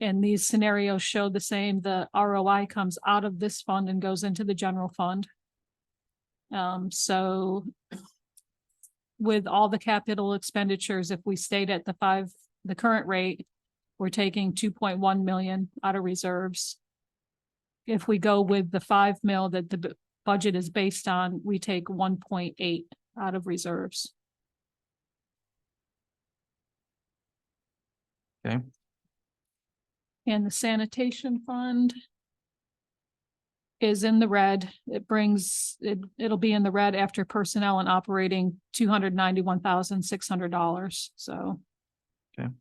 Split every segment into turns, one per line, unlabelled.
and these scenarios show the same, the ROI comes out of this fund and goes into the general fund. Um, so with all the capital expenditures, if we stayed at the five, the current rate, we're taking two point one million out of reserves. If we go with the five mil that the bu- budget is based on, we take one point eight out of reserves.
Okay.
And the sanitation fund is in the red. It brings, it, it'll be in the red after personnel and operating two hundred ninety-one thousand, six hundred dollars. So
And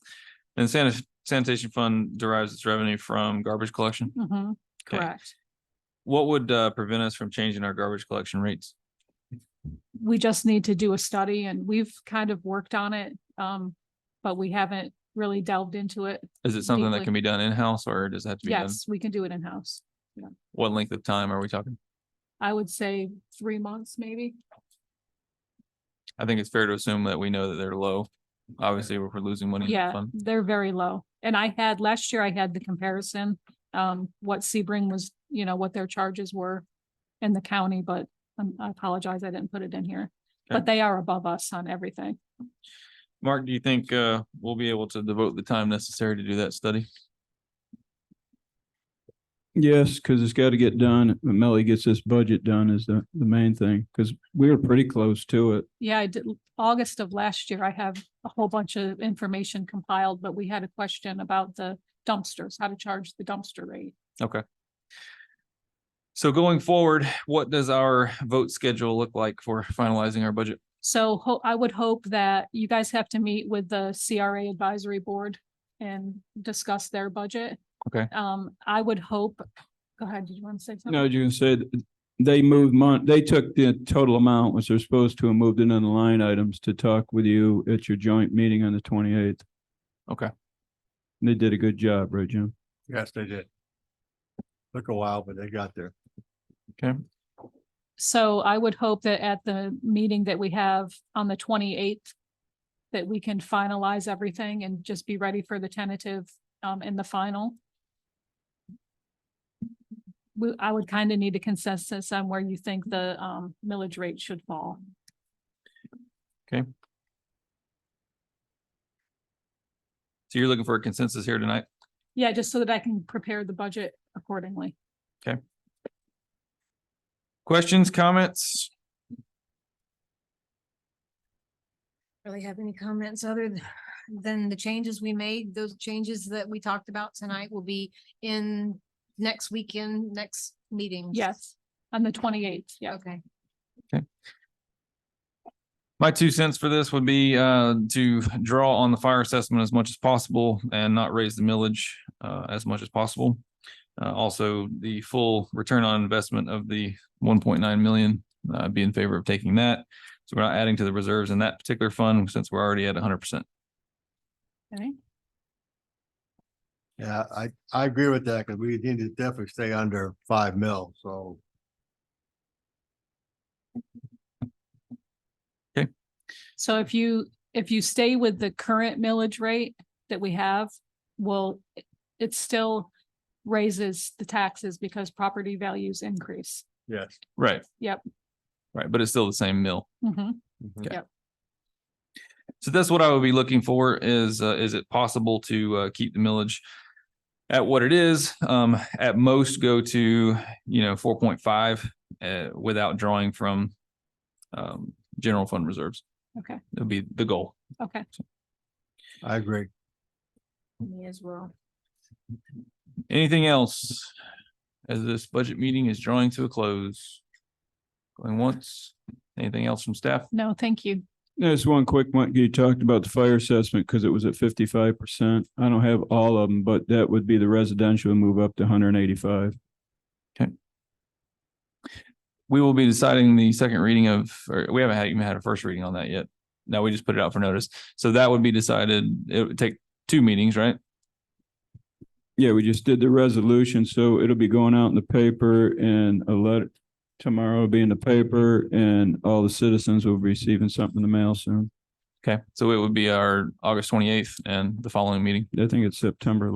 sanit- sanitation fund derives its revenue from garbage collection.
mhm,
Okay.
correct.
What would uh prevent us from changing our garbage collection rates?
We just need to do a study and we've kind of worked on it, um, but we haven't really delved into it.
Is it something that
Deeply.
can be done in-house or does it have to be done?
Yes, we can do it in-house.
What length of time are we talking?
I would say three months, maybe.
I think it's fair to assume that we know that they're low. Obviously, we're we're losing money. in the
Yeah,
fund.
they're very low. And I had, last year I had the comparison, um, what Sebring was, you know, what their charges were in the county, but um, I apologize, I didn't put it in here. But
Okay.
they are above us on everything.
Mark, do you think uh we'll be able to devote the time necessary to do that study?
Yes, because it's got to get done. Melly gets this budget done is the, the main thing, because we were pretty close to it.
Yeah, I did, August of last year, I have a whole bunch of information compiled, but we had a question about the dumpsters, how to charge the dumpster rate.
Okay. So going forward, what does our vote schedule look like for finalizing our budget?
So ho- I would hope that you guys have to meet with the CRA advisory board and discuss their budget.
Okay.
Um, I would hope, go ahead, did you want to say something?
No, you said they moved mon, they took the total amount, which they're supposed to, and moved it in the line items to talk with you at your joint meeting on the twenty-eighth.
Okay.
They did a good job, right, Jim?
Yes, they did. Took a while, but they got there.
So I would hope that at the meeting that we have on the twenty eighth, that we can finalize everything and just be ready for the tentative um and the final. We, I would kind of need a consensus on where you think the um millage rate should fall.
So you're looking for a consensus here tonight?
Yeah, just so that I can prepare the budget accordingly.
Questions, comments?
really have any comments other th- than the changes we made. Those changes that we talked about tonight will be in next weekend, next meeting.
Yes, on the twenty eighth, yeah.
Okay.
My two cents for this would be uh to draw on the fire assessment as much as possible and not raise the millage uh as much as possible. Uh, also, the full return on investment of the one point nine million, uh, I'd be in favor of taking that. So we're not adding to the reserves in that particular fund since we're already at hundred percent.
Okay.
Yeah, I, I agree with that because we need to definitely stay under five mil, so.
So if you, if you stay with the current millage rate that we have, well, it- it still raises the taxes because property values increase.
Yes.
Right.
Yep.
Right, but it's still the same mill.
Mhm.
So that's what I would be looking for is, uh, is it possible to, uh, keep the millage at what it is? Um, at most go to, you know, four point five, uh, without drawing from, um, general fund reserves.
Okay.
That'd be the goal.
Okay,
I agree.
Me as well.
Anything else? As this budget meeting is drawing to a close. Going once, anything else from staff?
no, thank you.
There's one quick one. You talked about the fire assessment because it was at fifty-five percent. I don't have all of them, but that would be the residential move up to hundred and eighty-five.
We will be deciding the second reading of, or we haven't had, even had a first reading on that yet. No, we just put it out for notice. So that would be decided, it would take two meetings, right?
Yeah, we just did the resolution, so it'll be going out in the paper and a letter tomorrow will be in the paper and all the citizens will be receiving something in the mail soon.
Okay, so it would be our August twenty-eighth and the following meeting.
I think it's September